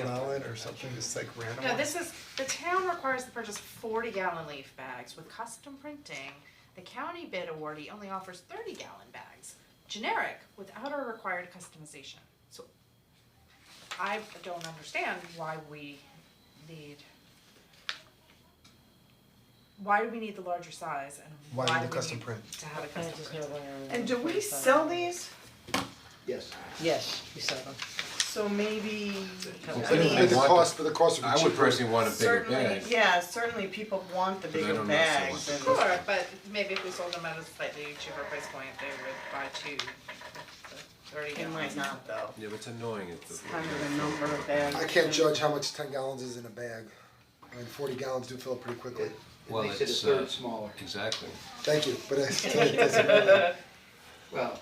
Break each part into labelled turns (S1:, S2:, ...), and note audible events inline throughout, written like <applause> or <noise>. S1: gallon or something, just like random?
S2: No, this is, the town requires to purchase forty gallon leaf bags with custom printing. The county bid awardee only offers thirty gallon bags, generic, without our required customization. So I don't understand why we need why do we need the larger size and
S1: Why
S2: why
S1: need
S2: do
S1: the
S2: we
S1: custom
S2: need
S1: print?
S2: to have a
S3: I
S2: custom
S3: just
S2: print?
S3: know when I
S4: And do we
S3: remember
S4: sell
S3: that.
S4: these?
S5: Yes.
S3: Yes, we sell them.
S4: So maybe,
S5: I mean,
S1: But the
S6: want
S1: cost, but the cost would be
S6: I would
S1: cheaper.
S6: personally want a bigger
S4: certainly,
S6: bag.
S4: yeah, certainly people want the
S6: But I
S4: bigger
S6: don't know if they
S4: bags
S6: want
S4: and.
S2: Sure, but maybe if we sold them at a slightly cheaper price point, they would buy two thirty
S4: It
S2: gallons.
S4: might not though,
S6: Yeah, but it's annoying, it's.
S4: it's kind of the number of bags.
S1: I can't judge how much ten gallons is in a bag, I mean, forty gallons do fill up pretty quickly,
S5: It
S7: Well,
S5: makes it a
S7: it's, uh,
S5: third smaller.
S7: Exactly.
S1: thank you, but it's, it doesn't
S2: <laughs>
S1: matter.
S5: Well.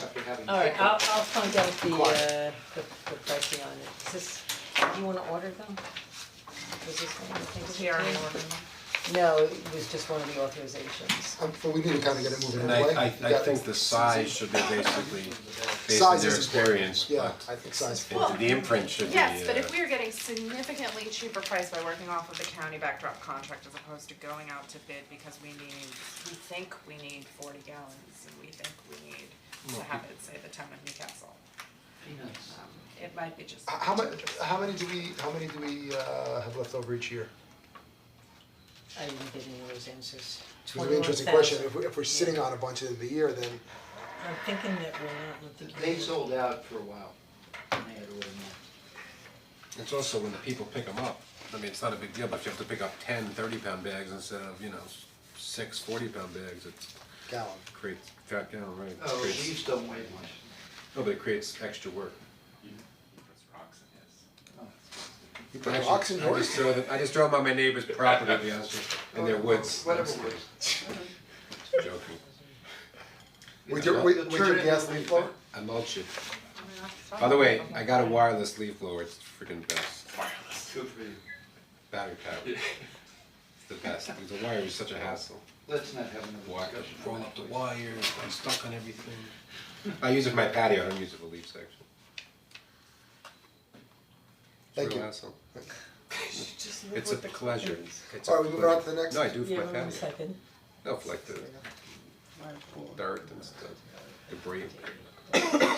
S5: After having.
S3: Alright, I'll I'll find out the uh
S5: Quiet.
S3: the the pricing on it. Is this, do you wanna order them? Was this one, I think
S2: Is
S3: it's
S2: he already
S3: okay?
S2: ordering them?
S3: No, it was just one of the authorizations.
S1: Um, but we need to kinda get it moving
S6: And
S1: anyway.
S6: I, I,
S1: We
S6: I
S1: got-
S6: think the size should be basically based on
S1: Size
S6: their
S1: is important,
S6: experience,
S1: yeah,
S6: but
S1: I think size. is
S2: Well-
S1: important.
S6: the imprint should be, uh.
S2: Yes, but if we are getting significantly cheaper price by working off of the county backdrop contract as opposed to going out to bid because we need, we think we need forty gallons and we think we need to have it, say, the town of Newcastle.
S5: Peanuts.
S2: Um, It might be just.
S1: H- How mu- how many do we, how many do we, uh, have left over each year?
S3: I didn't get any of those answers.
S1: It's an interesting question, if we, if we're sitting on a bunch of the year, then
S3: I'm thinking that we're not, I'm thinking.
S5: They sold out for a while, and they had to order more.
S6: It's also when the people pick them up, I mean, it's not a big deal, but if you have to pick up ten thirty pound bags instead of, you know, six forty pound bags, it
S1: gallon,
S6: creates, got, you know, right, it
S5: Oh,
S6: creates-
S5: leaves don't weigh much.
S6: no, but it creates extra work. You Oh, put
S1: Like
S6: actually-
S1: oxen
S6: I just throw them, I just throw them on my neighbor's property, to be honest with you, in their woods,
S5: Whatever
S6: that's
S5: it was.
S6: joking,
S1: with your, with with your gas leaf blower?
S6: I mulch it. By the way, I got a wireless leaf blower, it's freaking best,
S5: Good for you.
S6: battery powered. It's the best, because the wire is such a hassle.
S5: Let's not have another
S6: Wire,
S5: discussion.
S6: roll up the wires, I'm stuck on everything. I use it for my patio, I don't use it for leaf section. It's
S1: Thank
S6: a real
S1: you.
S6: hassle. It's a pleasure, it's a pleasure.
S1: Alright, we moving on to the next?
S6: No, I do it
S3: Yeah,
S6: for my
S3: one
S6: patio,
S3: second.
S6: no, for like the dirt and stuff, debris.
S3: Uh,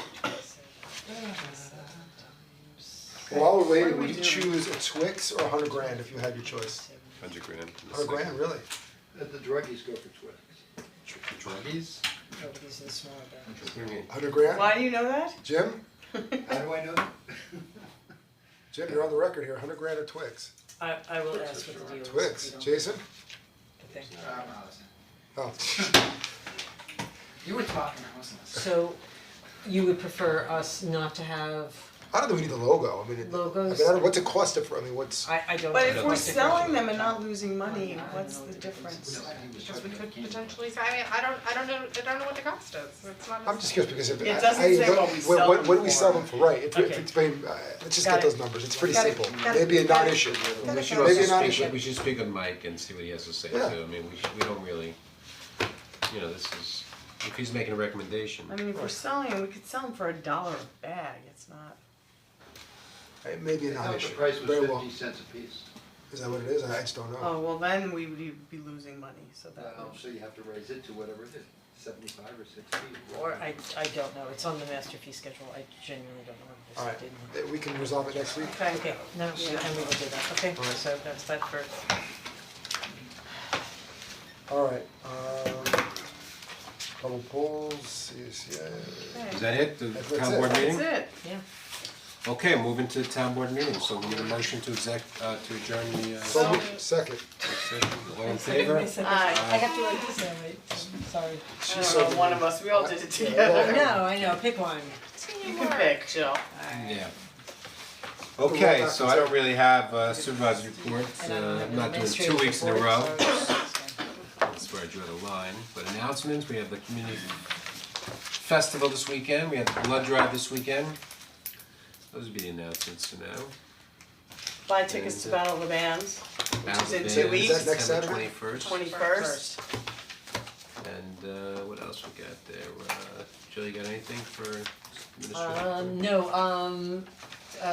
S1: While we're waiting, would you choose a Twix or a hundred grand if you had your choice?
S6: Hundred grand. in the
S1: Hundred grand,
S6: second.
S1: really?
S5: Let Uh, The druggies go for Twix.
S6: Dr- Druggies?
S3: Oh, but these are the smaller bags.
S6: What do you mean?
S1: Hundred grand?
S4: Why do you know that?
S1: Jim,
S5: How do I know that?
S1: Jim, you're on the record here, hundred grand or Twix?
S3: I I will ask what the deal is. if
S1: Twix,
S3: you don't-
S1: Jason?
S3: Okay.
S5: Ah, Allison.
S1: Oh,
S5: You were talking, I wasn't listening.
S3: So you would prefer us not to have,
S1: I don't think we need the logo, I mean, it- I mean, I
S3: Logos.
S1: don't, what's it cost if, I mean, what's,
S3: I I don't.
S4: But
S3: know
S4: if
S3: what the
S4: we're
S3: difference
S4: selling them
S3: is.
S4: and not losing money, what's the difference?
S5: No, he was
S2: Because we
S5: talking
S2: could
S5: about candy bars.
S2: potentially, I mean, I don't, I don't know, I don't know what the cost is, it's not.
S1: I'm just curious because if, I,
S4: It doesn't
S1: I,
S4: say
S1: don't-
S4: what we
S1: what,
S4: sell
S1: what, what do
S4: them
S1: we
S4: for.
S1: sell them for, right, if, if
S3: Okay.
S1: it's been, uh, let's just
S3: Got
S1: get
S3: it.
S1: those numbers, it's pretty
S4: Got it.
S1: simple,
S4: Got it.
S1: maybe a
S4: Got it.
S1: non-issue.
S6: We should
S1: Maybe
S6: also
S1: not
S6: speak,
S1: issue.
S6: we should speak with Mike and see what he has to say too,
S1: Yeah.
S6: I mean, we should, we don't really, you know, this is, if he's making a recommendation.
S4: I mean, if we're selling them, we could sell them for a dollar a bag, it's not.
S1: Uh, Maybe a
S5: I thought the
S1: non-issue,
S5: price was
S1: very well,
S5: fifty cents a piece.
S1: is that what it is, I just don't know.
S4: Oh, well, then we would be losing money, so that
S5: Uh, so you have to raise it to whatever it is, seventy-five or sixty.
S3: Or I I don't know, it's on the master fee schedule, I genuinely don't know what
S1: Alright,
S3: this didn't.
S1: Uh, we can resolve it next week,
S3: Okay, no, and we will do that, okay, so that's that for,
S1: alright, um, double polls, E yes, yeah.
S6: Is that it, the
S1: That's- that's
S6: town
S1: it.
S6: board meeting?
S4: That's it.
S3: yeah.
S6: Okay, moving to the town board meeting, so we need a motion to exec, uh, to adjourn the, uh,
S1: So, second,
S6: session, all in favor?
S3: I have to write this down, right, I'm sorry.
S1: she's
S4: I
S1: so.
S4: don't know, one of us, we all did it
S1: Yeah,
S4: together.
S3: No, I know, pick one.
S4: You can pick, Jill.
S6: Yeah. Okay, so I don't really have uh, supervisor
S3: And
S6: reports,
S3: I don't
S6: uh,
S3: have
S6: I'm
S3: an
S6: not doing two
S3: administrative
S6: weeks in a
S3: report,
S6: row,
S3: so-
S6: that's where I draw the line, but announcements, we have the community festival this weekend, we have the blood drive this weekend. Those would be the announcements for now.
S4: Buy tickets to Battle of the Bands,
S6: Battle of
S4: in two
S6: the Bands,
S4: weeks. Is
S1: that next
S6: September
S1: Saturday?
S6: twenty-first.
S4: twenty first.
S6: And uh what else we got there, uh Jill, you got anything for administrative?
S3: Um, no, um,